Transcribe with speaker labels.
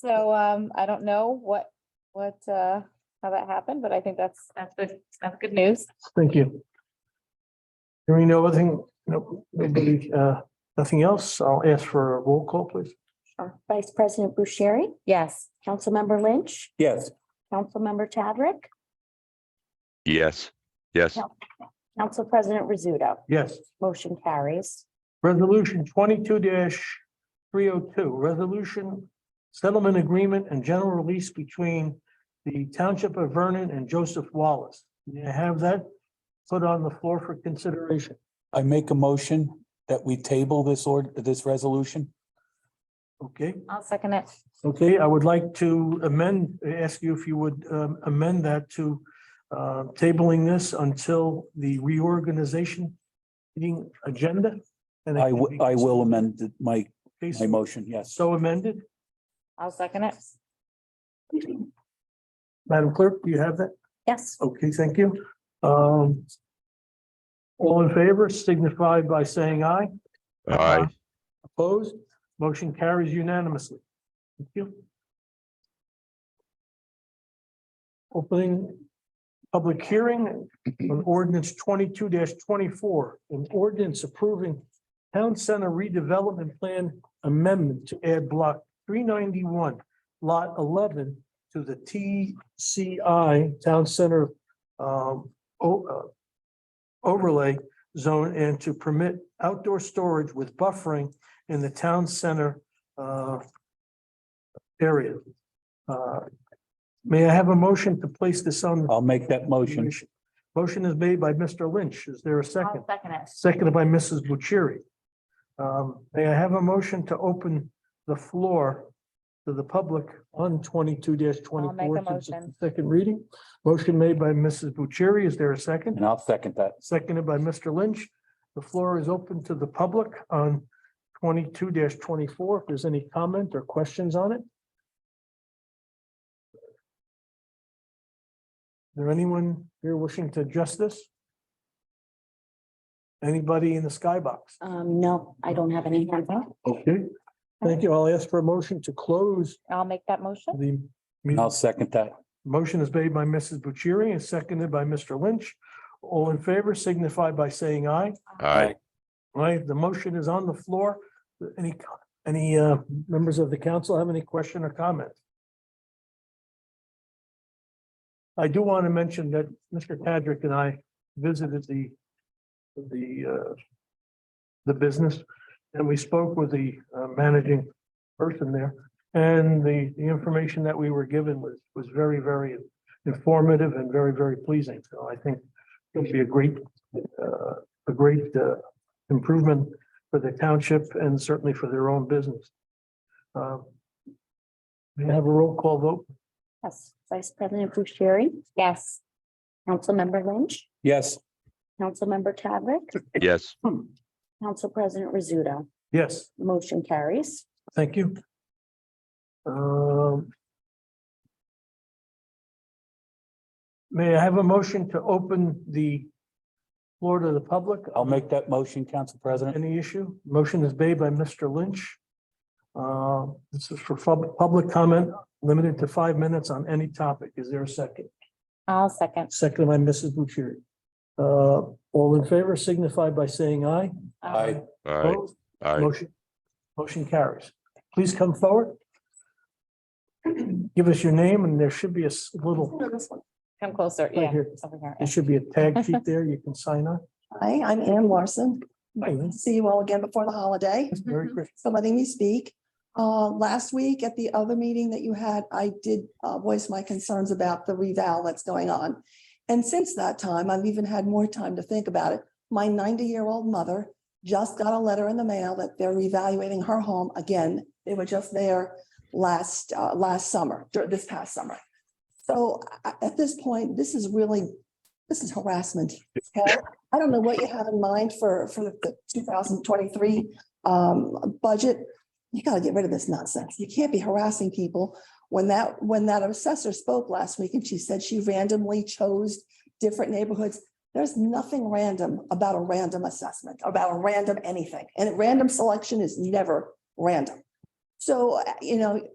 Speaker 1: So um, I don't know what, what, uh, how that happened, but I think that's, that's good, that's good news.
Speaker 2: Thank you. Hearing no other thing, no, maybe, uh, nothing else, I'll ask for a roll call, please.
Speaker 3: Our Vice President Bucieri,
Speaker 1: Yes.
Speaker 3: Councilmember Lynch,
Speaker 4: Yes.
Speaker 3: Councilmember Tadrick,
Speaker 5: Yes, yes,
Speaker 3: No. Council President Rizzuto.
Speaker 2: Yes,
Speaker 3: Motion carries.
Speaker 2: resolution twenty-two three oh two, resolution settlement agreement and general release between the Township of Vernon and Joseph Wallace. May I have that put on the floor for consideration?
Speaker 4: I make a motion that we table this or this resolution.
Speaker 2: Okay,
Speaker 1: I'll second it.
Speaker 2: okay, I would like to amend, ask you if you would um, amend that to uh, tabling this until the reorganization meeting agenda. and it
Speaker 4: I
Speaker 2: can
Speaker 4: wi-
Speaker 2: be
Speaker 4: I will amend th- my
Speaker 2: considered.
Speaker 4: my motion, yes.
Speaker 2: So amended,
Speaker 1: I'll second it.
Speaker 2: Madam Clerk, do you have that?
Speaker 3: Yes.
Speaker 2: Okay, thank you. Um. All in favor signify by saying aye.
Speaker 5: aye,
Speaker 2: Opposed, motion carries unanimously. Thank you. Opening public hearing on ordinance twenty-two twenty-four, an ordinance approving town center redevelopment plan amendment to add block three ninety-one, lot eleven to the TCI Town Center um, o- uh, overlay zone and to permit outdoor storage with buffering in the town center uh, area. Uh, May I have a motion to place this on? the
Speaker 4: I'll make that motion.
Speaker 2: commission? Motion is made by Mr. Lynch. Is there a second?
Speaker 1: I'll second it.
Speaker 2: Seconded by Mrs. Bucieri. Um, May I have a motion to open the floor to the public on twenty-two
Speaker 1: I'll make a
Speaker 2: 24 since it's
Speaker 1: motion.
Speaker 2: the Second reading. Motion made by Mrs. Bucieri. Is there a second?
Speaker 4: And I'll second that.
Speaker 2: Seconded by Mr. Lynch. The floor is open to the public on twenty-two twenty-four. If there's any comment or questions on it. Is there anyone here wishing to address this? Anybody in the skybox?
Speaker 3: Um, no, I don't have any hands up.
Speaker 2: Okay. Thank you. I'll ask for a motion to close
Speaker 1: I'll make that motion.
Speaker 2: the
Speaker 4: And
Speaker 2: meeting.
Speaker 4: I'll second that.
Speaker 2: Motion is made by Mrs. Bucieri and seconded by Mr. Lynch. All in favor signify by saying aye.
Speaker 5: aye.
Speaker 2: Right, the motion is on the floor. Any, co- any uh, members of the council have any question or comment? I do want to mention that Mr. Tadrick and I visited the, the, uh, the business, and we spoke with the uh, managing person there. And the, the information that we were given was, was very, very informative and very, very pleasing. So I think it'll be a great, uh, a great uh, improvement for the township and certainly for their own business. Uh, May I have a roll call vote?
Speaker 3: Yes. Vice President Bucieri,
Speaker 1: Yes.
Speaker 3: Councilmember Lynch,
Speaker 4: Yes,
Speaker 3: Councilmember Tadrick,
Speaker 5: Yes,
Speaker 3: Council President Rizzuto.
Speaker 2: Yes,
Speaker 3: Motion carries.
Speaker 2: thank you. Um, May I have a motion to open the floor to the public?
Speaker 4: I'll make that motion, Council President.
Speaker 2: Any issue? Motion is made by Mr. Lynch. Uh, This is for pub- public comment, limited to five minutes on any topic. Is there a second?
Speaker 1: I'll second.
Speaker 2: Seconded by Mrs. Bucieri. Uh, all in favor signify by saying aye.
Speaker 1: Um,
Speaker 4: Aye.
Speaker 5: aye,
Speaker 2: Opposed?
Speaker 5: aye,
Speaker 2: Motion, motion carries. Please come forward. Give us your name and there should be a s- little,
Speaker 1: Come closer.
Speaker 2: Right
Speaker 1: Yeah.
Speaker 2: here.
Speaker 1: Over here.
Speaker 2: there should be a tag sheet there. You can sign on.
Speaker 6: Hi, I'm Ann Larson.
Speaker 2: Hi, Ann.
Speaker 6: See you all again before the holiday.
Speaker 2: Merry Christmas.
Speaker 6: So letting me speak. Uh, last week at the other meeting that you had, I did uh, voice my concerns about the revow that's going on. And since that time, I've even had more time to think about it. My ninety-year-old mother just got a letter in the mail that they're revaluating her home again. They were just there last, uh, last summer, dur- this past summer. So I- I- at this point, this is really, this is harassment. okay? I don't know what you have in mind for, for the two thousand twenty-three um, budget. You gotta get rid of this nonsense. You can't be harassing people. When that, when that assessor spoke last week and she said she randomly chose different neighborhoods. There's nothing random about a random assessment, about a random anything. And random selection is never random. So, uh, you know,